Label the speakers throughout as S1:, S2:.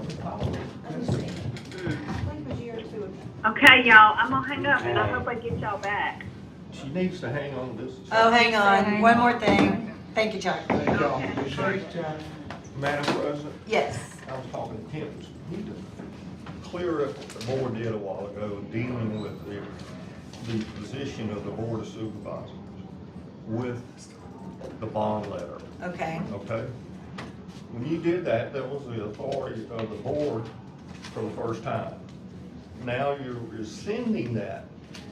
S1: following. understand. I think it was a year or two ago.
S2: Okay, y'all, I'm gonna hang up and I hope I get y'all back.
S3: She needs to hang on to this.
S4: Oh, hang on, one more thing. Thank you, Chuck.
S3: Thank y'all.
S2: Okay.
S3: Madam President,
S4: Yes.
S3: I was talking to Tim, we need to clear up what the board did a while ago, dealing with the, the position of the board of supervisors with the bond letter,
S4: Okay,
S3: okay? When you did that, that was the authority of the board for the first time. Now you're rescinding that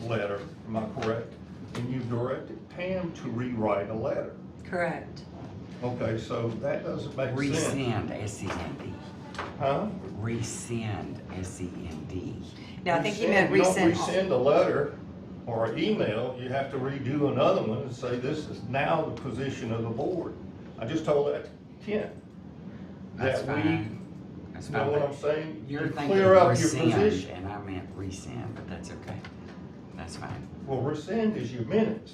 S3: letter, am I correct? And you've directed Pam to rewrite a letter.
S4: correct.
S3: Okay, so that doesn't make sense.
S5: Rescind, S-E-N-D.
S3: Huh?
S5: Rescind, S-E-N-D.
S4: No, I think he
S3: Rescind.
S4: meant
S3: You don't
S4: recent.
S3: rescind a letter or an email, you have to redo another one and say, this is now the position of the board. I just told that to Kent.
S5: That's
S3: That we-
S5: fine. That's
S3: You know
S5: fine,
S3: what
S5: but
S3: I'm saying?
S5: You're
S3: You
S5: thinking
S3: clear up your
S5: rescind,
S3: position.
S5: and I meant rescind, but that's okay. That's fine.
S3: Well, rescind is your minutes,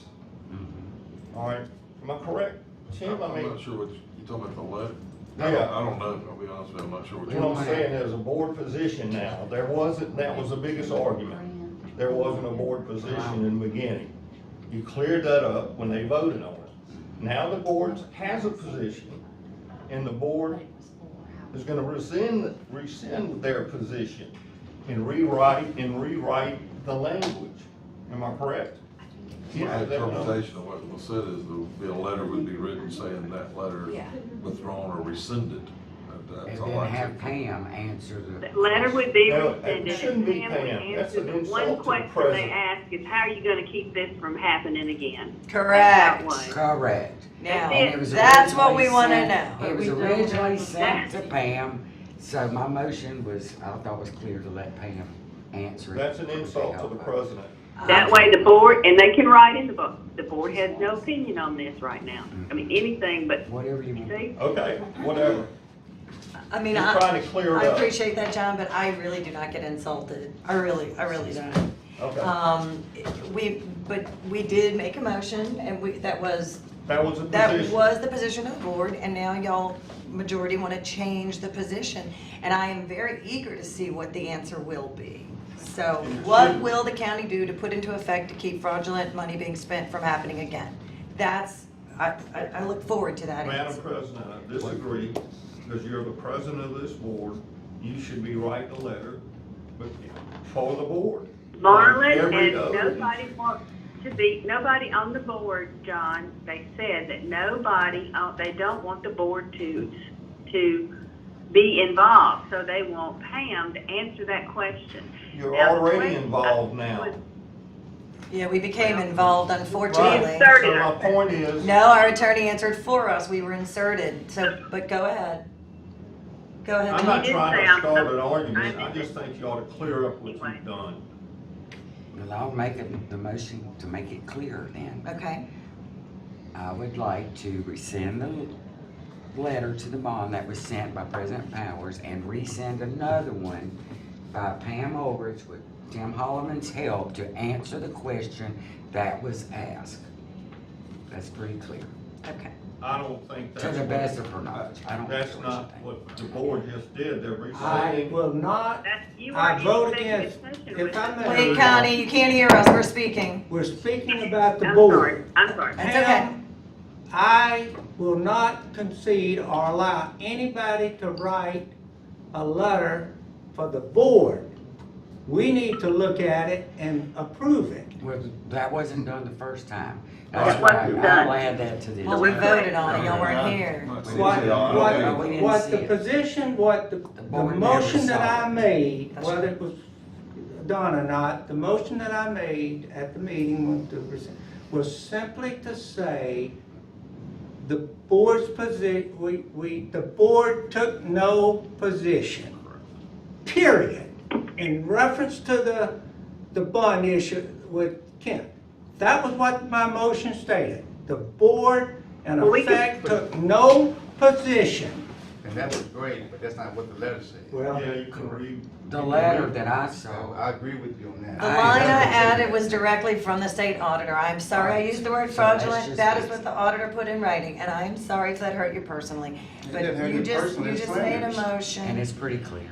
S5: Mhm.
S3: all right? Am I correct, Tim? I
S6: I'm
S3: mean,
S6: not sure what, you you talking about the letter? I don't,
S3: yeah,
S6: I don't know, I'll be honest with you, I'm not sure what
S3: what I'm
S6: you're.
S3: saying is a board position now. There wasn't, that was the biggest argument. There wasn't a board position in the beginning. You cleared that up when they voted on it. Now the board has a position, and the board is gonna rescind, rescind their position and rewrite, and rewrite the language. Am I correct?
S6: My
S3: Yeah, that-
S6: interpretation of what was said is there would be a letter would be written saying that letter is
S1: Yeah.
S6: withdrawn or rescinded. That-
S5: And
S6: That's all
S5: then
S6: I
S5: have
S6: can.
S5: Pam answer the.
S2: The letter would be
S3: No, it
S2: rescinded
S3: shouldn't
S2: and
S3: be,
S2: Pam
S3: Pam.
S2: would
S3: That's
S2: answer
S3: an
S2: the
S3: insult to
S2: one
S3: the
S2: question they
S3: president.
S2: ask is, how are you gonna keep this from happening again?
S4: Correct.
S2: That one.
S5: Correct.
S4: Now,
S5: And it was
S4: that's what we
S5: originally
S4: want to
S5: sent-
S4: know.
S5: It was
S7: We don't
S5: originally
S7: have
S5: sent to
S7: that.
S5: Pam, so my motion was, I thought was clear to let Pam answer it.
S3: That's an insult to the president.
S2: That way the board, and they can write in the book, the board has no opinion on this right now. I mean, anything but,
S5: Whatever you want.
S2: see,
S3: Okay, whatever.
S4: I mean,
S3: You're
S4: I,
S3: trying to clear it
S4: I
S3: up.
S4: appreciate that, John, but I really do not get insulted. I really, I really don't.
S3: Okay,
S4: Um, we, but we did make a motion and we, that was,
S3: that was a position.
S4: that was the position of the board and now y'all majority want to change the position. And I am very eager to see what the answer will be. So what will the county do to put into effect to keep fraudulent money being spent from happening again? That's, I, I, I look forward to that
S3: Madam
S4: answer.
S3: President, I disagree, because you're the president of this board, you should be writing a letter but for the board.
S2: Marlon
S3: Every
S2: and
S3: other-
S2: nobody wants to be, nobody on the board, John, they said that nobody, on- they don't want the board to, to be involved, so they want Pam to answer that question.
S3: You're
S2: Now, the
S3: already
S2: question-
S3: involved now.
S4: Yeah, we became involved unfortunately.
S3: Right, so my point is,
S4: No, our attorney answered for us. We were inserted, so, but go ahead. Go ahead,
S3: I'm
S4: Tom.
S3: not
S2: did
S3: trying
S2: say
S3: to
S2: I'm-
S3: start an argument,
S2: I'm-
S3: I just think you ought to clear up what you've done.
S5: Well, I'll make it- the motion to make it clear then.
S4: Okay,
S5: I would like to rescind the letter to the bond that was sent by President Powers and resend another one by Pam Olrich with Tim Holloman's help to answer the question that was asked. That's pretty clear,
S4: okay.
S3: I don't think
S5: to
S3: that's,
S5: the
S3: what-
S5: best of her knowledge. I don't care
S3: that's
S5: what
S3: not
S5: you think.
S3: what the board just did, they're
S7: I
S3: rescinding.
S7: will not,
S2: That's, you
S7: I
S2: are in
S7: vote
S2: executive
S7: against.
S2: session
S7: If
S2: with
S7: I
S2: us.
S7: may-
S4: Wait, Connie, you can't hear us. We're speaking.
S7: we're speaking about the
S2: I'm
S7: board.
S2: sorry, I'm sorry.
S4: That's okay.
S7: Pam, I will not concede or allow anybody to write a letter for the board. We need to look at it and approve it.
S5: Well, that wasn't done the first time.
S2: It
S5: That's why
S2: wasn't done.
S5: I'll add that to this.
S4: Well, we voted on it. Y'all weren't here.
S6: Not saying
S7: What,
S6: they are,
S7: what-
S6: okay.
S5: we didn't
S7: what
S5: see
S7: the
S5: it.
S7: position, what the, the
S5: board never
S7: motion that
S5: saw
S7: I
S5: it.
S7: made,
S4: That's
S7: whether
S4: right.
S7: it was done or not, the motion that I made at the meeting was to- was simply to say the board's position, we, we, the board took no position, period, in reference to the, the bond issue with Kent. That was what my motion stated. The board, in
S2: Well, we can-
S7: effect, took no position.
S8: And that was great, but that's not what the letter said.
S7: Well,
S3: Yeah, you can read,
S5: The letter that I
S8: So
S5: saw,
S8: I agree with you on that.
S4: The
S5: I-
S4: line I added was directly from the state auditor. I'm sorry I used the word
S5: So that's
S4: fraudulent.
S5: just-
S4: That is what the auditor put in writing, and I'm sorry if that hurt you personally.
S8: It
S4: But
S8: didn't hurt
S4: you
S8: me
S4: just,
S8: personally,
S4: you
S8: it's
S4: just made a
S8: slanderous.
S4: motion.
S5: and it's pretty clear.